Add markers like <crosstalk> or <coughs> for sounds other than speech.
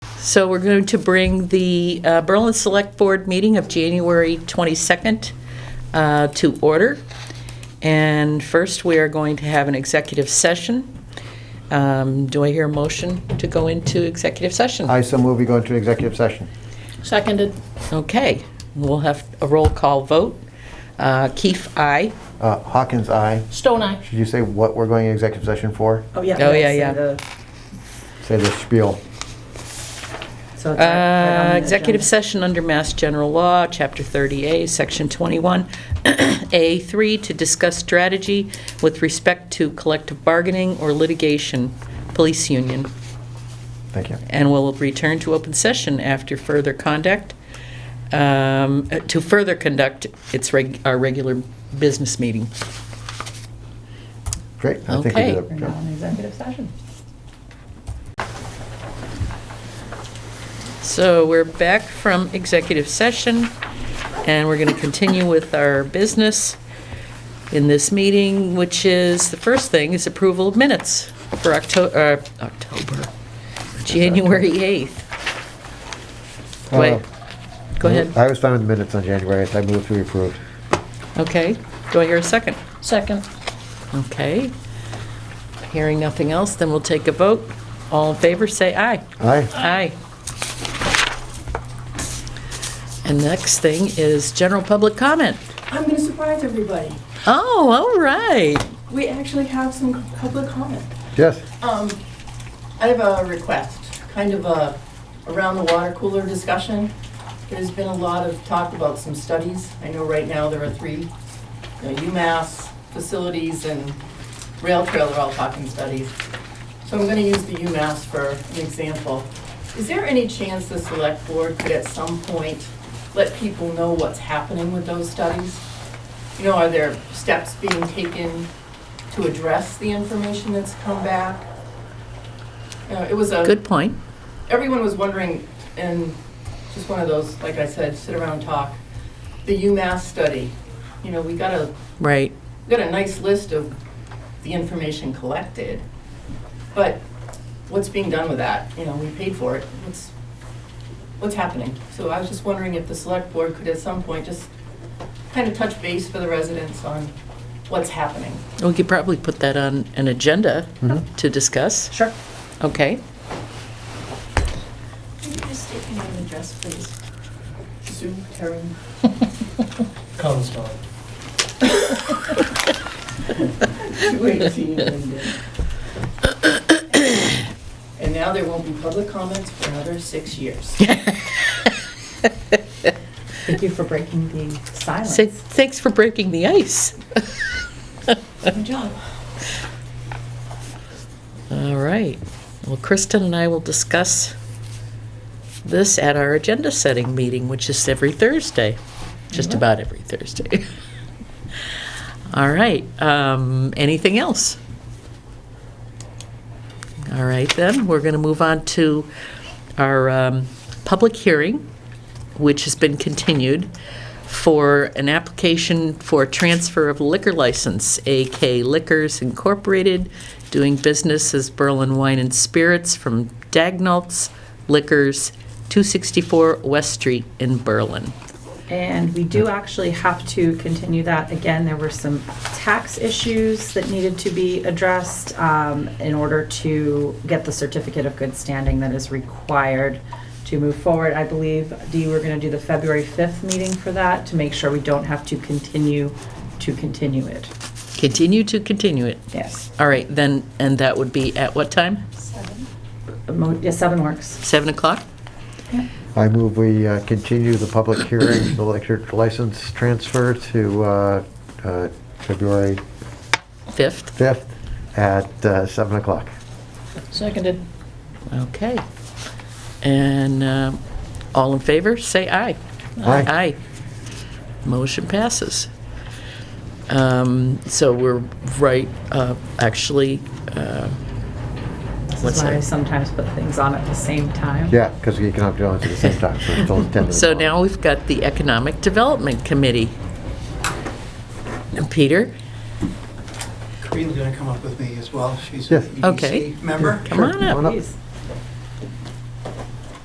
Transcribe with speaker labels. Speaker 1: So we're going to bring the uh, Berlin Select Board meeting of January 22nd uh, to order. And first, we are going to have an executive session. Um, Do I hear a motion to go into executive session?
Speaker 2: I so move we go into executive session.
Speaker 3: Seconded.
Speaker 1: Okay, we'll have a roll call vote. Uh, Keefe, aye.
Speaker 2: Uh, Hawkins, aye.
Speaker 3: Stone Eye.
Speaker 2: Did you say what we're going into executive session for?
Speaker 4: Oh, yeah.
Speaker 1: Oh, yeah,
Speaker 4: so
Speaker 1: yeah.
Speaker 4: the-
Speaker 2: Say the spiel.
Speaker 4: so it's right- right on
Speaker 1: Uh,
Speaker 4: the
Speaker 1: Executive
Speaker 4: agenda.
Speaker 1: session under Mass General Law, Chapter 30A, Section <clears throat> 21A3, to discuss strategy with respect to collective bargaining or litigation, police union,
Speaker 2: Thank you.
Speaker 1: and will return to open session after further conduct, um, uh, to further conduct its, reg- our regular business meeting.
Speaker 2: Great. I think we
Speaker 1: Okay.
Speaker 2: did it.
Speaker 4: We're now in executive session.
Speaker 1: So we're back from executive session, and we're going to continue with our business in this meeting, which is, the first thing is approval of minutes for October, October, January 8th. Wait, go ahead.
Speaker 2: Oh. Uh, I was fine with the minutes on January 8th. I moved to approve.
Speaker 1: Okay, do I hear a second?
Speaker 3: Second.
Speaker 1: Okay. Hearing nothing else, then we'll take a vote. All in favor, say aye.
Speaker 2: Aye.
Speaker 1: Aye. And next thing is general public comment.
Speaker 5: I'm going to surprise everybody.
Speaker 1: Oh, all right.
Speaker 5: We actually have some public comment.
Speaker 2: Yes.
Speaker 5: Um, I have a request, kind of a around the water cooler discussion. There's been a lot of talk about some studies. I know right now there are three, you know, UMass facilities and rail trail are all talking studies. So I'm going to use the UMass for an example. Is there any chance the select board could at some point let people know what's happening with those studies? You know, are there steps being taken to address the information that's come back? You know, It was a
Speaker 1: Good point.
Speaker 5: everyone was wondering, and just one of those, like I said, sit around and talk, the UMass study. You know, we got a,
Speaker 1: Right.
Speaker 5: we got a nice list of the information collected, but what's being done with that? You know, we paid for it. What's, what's happening? So I was just wondering if the select board could at some point just kind of touch base for the residents on what's happening.
Speaker 1: We could probably put that on an agenda to discuss.
Speaker 3: Sure.
Speaker 1: Okay.
Speaker 5: Can you just state your name and address, please? Sue Karen.
Speaker 6: Collinsville.
Speaker 5: 218 <coughs> Linden. And now there won't be public comments for another six years.
Speaker 4: Thank you for breaking the silence.
Speaker 1: Say, thanks for breaking the ice.
Speaker 5: Good job.
Speaker 1: All right. Well, Kristen and I will discuss this at our agenda setting meeting, which is every Thursday, just about every Thursday. <laughs> All right. Um, anything else? All right, then, we're going to move on to our um, public hearing, which has been continued for an application for transfer of liquor license, AK Liquors Incorporated, doing business as Berlin Wine and Spirits from Dagnalds Liquors, 264 West Street in Berlin.
Speaker 4: And we do actually have to continue that. Again, there were some tax issues that needed to be addressed um, in order to get the certificate of good standing that is required to move forward. I believe, Dee, we're going to do the February 5th meeting for that to make sure we don't have to continue to continue it.
Speaker 1: Continue to continue it.
Speaker 4: Yes.
Speaker 1: All right, then, and that would be at what time?
Speaker 4: Yes, seven works.
Speaker 1: 7 o'clock?
Speaker 2: I move we uh, continue the public hearing, the liquor license transfer to uh, uh, February
Speaker 1: 5th?
Speaker 2: 5th at uh, 7 o'clock.
Speaker 3: Seconded.
Speaker 1: Okay. And um, all in favor, say aye. Aye.
Speaker 2: Aye.
Speaker 1: Motion passes. Um, So we're right, uh, actually, uh,
Speaker 4: This
Speaker 1: What's
Speaker 4: is why
Speaker 1: that?
Speaker 4: I sometimes put things on at the same time.
Speaker 2: Yeah, because you can have to do it at the same time, so it's all 10
Speaker 1: so now we've got the Economic Development Committee. And Peter,
Speaker 6: Karina's gonna come up with me as well. She's
Speaker 2: Yes.
Speaker 6: an
Speaker 1: Okay.
Speaker 6: EDC member.
Speaker 1: come on
Speaker 2: Come
Speaker 1: up.
Speaker 2: on up.
Speaker 4: Please.